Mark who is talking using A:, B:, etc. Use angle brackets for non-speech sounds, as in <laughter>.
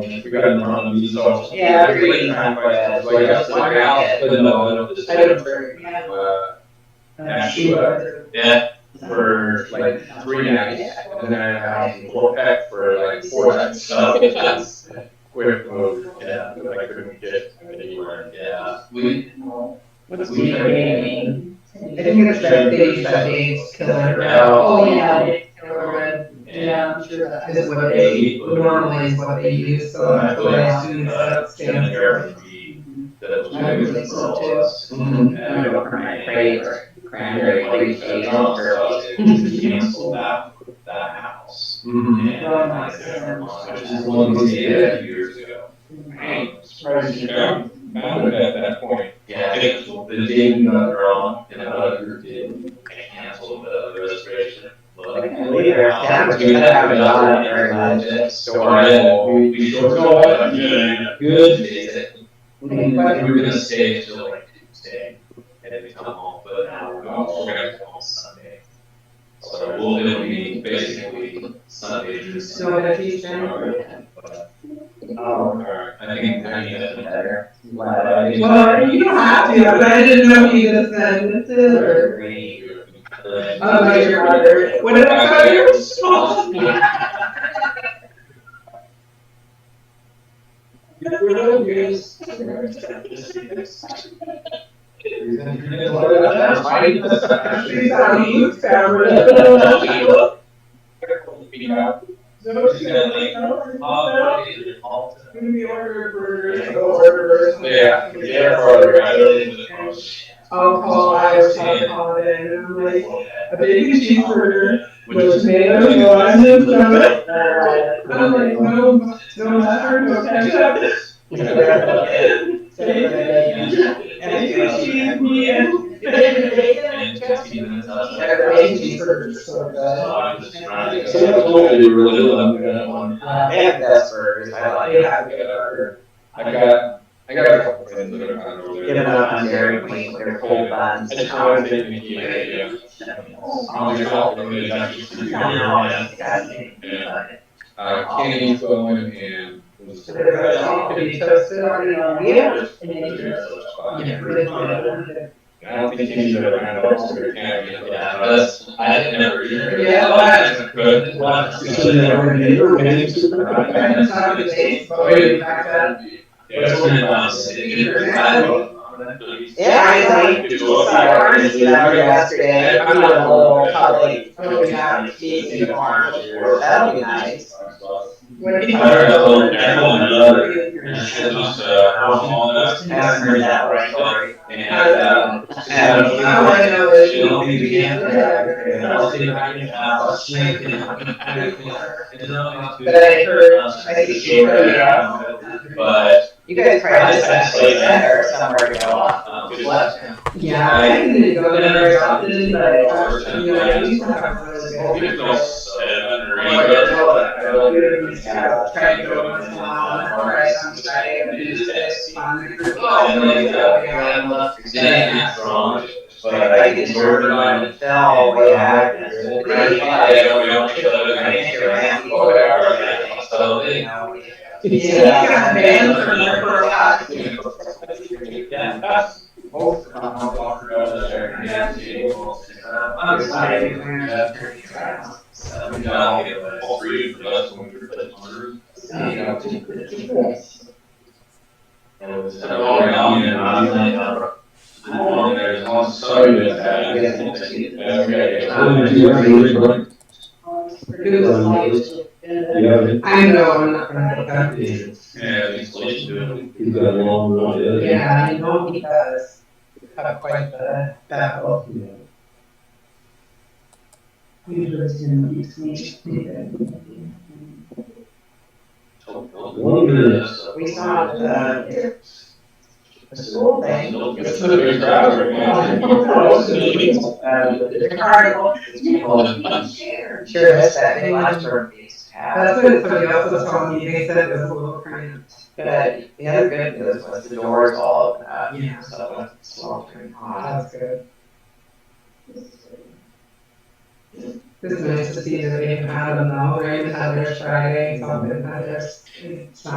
A: We got in on them, these are.
B: Yeah, I agree.
A: Late time questions, like, I said, I asked for the middle of the
B: I don't
A: state,
B: remember. Yeah.
A: uh,
B: Uh,
A: she was- yeah, for like three nights.
B: Yeah.
A: And then I had four pack for like four nights, so it was quick move, yeah, but I couldn't get anywhere, yeah. We, we
C: Yeah, I
A: had
C: mean, I think it's better days by days, killer.
B: Oh,
A: Oh,
B: yeah, I
C: yeah.
B: did, yeah, I'm sure that.
C: This is what they, normally is what they use, so
A: I
C: that's
A: feel
C: what I
A: like,
C: assume
A: uh,
C: that
A: Jim and
C: stands for.
A: Eric would be the
B: I would think
A: two
B: so, too.
A: roles.
B: Mm-hmm.
A: And
C: Mhm.
A: I don't
D: Cranberry
A: remember.
D: Cranberry
A: Like,
D: grape,
A: uh, so to cancel that, that house.
C: Mhm.
A: And
B: Oh
A: I said, "Vermont," which is Mm-hmm. one we did a few years ago.
B: Surprised you
A: Yeah,
E: Mounted at that point.
A: Yeah, it was- the Dayton Underground and another group did cancel the reservation. But
D: Later, that was
A: we
D: good.
A: have another one, so we're in, we, we sort of,
E: Yeah, yeah.
A: good, basic.
C: Mhm.
A: Like, we were gonna stay until like Tuesday, and then we come home, but now we're going, we're gonna go home Sunday. So we'll, it'll be basically Sunday through
C: So
A: Sunday.
C: if you generally.
A: But,
D: Oh,
A: alright, I think, I mean, that's better.
D: Glad <laughs> I didn't-
C: Well, you don't have to, but I didn't know if you just said this is or. Oh, my your mother, what did I tell you? Small. She's on you, Sarah. Gonna be ordered burgers, go order burgers.
A: Yeah, yeah, or, I don't
C: Alcohol, Irish alcohol, and I'm like, a bacon cheeseburger with tomatoes, lime, and stuff. I'm like, no, no mustard, no ketchup. And you cheese me and.
A: And fifteen minutes
C: I
A: left.
C: got the bacon cheeseburger, so good.
A: So I'm just trying to-
D: So that's
E: what we really love.
C: Uh,
D: They have the best burgers, I like it.
C: yeah, good.
E: I got, I got a couple friends that are kind of over
D: Get them
E: there.
D: out on Dairy Queen with their cold buns. Oh,
E: I just wanted to make you, yeah, yeah. I'm just out there, it's actually-
A: Yeah.
D: Disgusting.
E: Yeah. Uh, Kenny, Owen, and. was-
C: So they're gonna all be toasted on and on.
B: Yeah.
E: I
C: Really good.
E: don't think Kenny's ever had a lobster can.
A: Yeah, but that's, I didn't never either.
C: Yeah, well, I-
A: Good.
C: And it's not the taste, but we back that.
A: Yeah, it's been about sitting here.
D: Yeah, I like, saw ours down yesterday, I'm on a little public,
C: Oh, yeah.
D: cheesy farm. That'll be nice.
C: What do
A: I
C: you-
A: heard a little echo and another, and
C: Yeah.
A: it was, uh, how small it is.
D: Haven't heard that one story.
A: And, uh, just had a-
C: I wanna know that
A: She don't need to be in
C: there.
A: And I was sitting behind her, and I was shaking, and I was like, "I don't know how to-"
C: But I heard,
A: Um,
C: I think she heard.
A: yeah, But,
D: You guys probably actually better somewhere to go off.
A: um,
E: Good
A: left.
C: Yeah, I didn't go there very often, but uh, you know, I used to have one of those.
A: Well,
C: big
A: we don't
C: ones.
A: seven or
C: Like,
E: Oh
A: eight.
C: I
A: but-
C: know that, I know you're just gonna try to go once in a while, and all right, I'm sorry, I'm just this, fine. Oh,
A: And
C: really?
A: then, uh,
C: Yeah.
A: Then it's wrong, but I
D: I
A: get
D: could
A: sort
D: sort
A: of on.
D: of fell way out.
A: Yeah, we don't kill it, I think you're right, or whatever, so it-
C: Yeah, you got banned from there for a while.
A: Yeah.
D: Both
A: I'm sorry. So, we don't get it. All three of us when we were putting on the roof. And it was, uh, all around, and I was like, uh, I'm on there, it's on, so good.
E: Yeah, okay.
C: It was like- I know, I'm not gonna make that.
A: Yeah, it's like, you do it.
C: Yeah, I know he does have quite the battle. He lives in East Michigan. We saw the the school thing.
E: It's a big crowd
C: <laughs>
E: right now.
D: Um,
C: The carnival.
D: sure is that big lunchroom we used to have.
C: That's what somebody else was telling me, they said it was a little cramped.
D: But the other good news was the doors all uh, opened up,
C: Yeah.
D: so it wasn't sweltering hot.
C: That's good. It's nice to see that they even had them though, they even had theirs Friday, some of them had theirs. It's not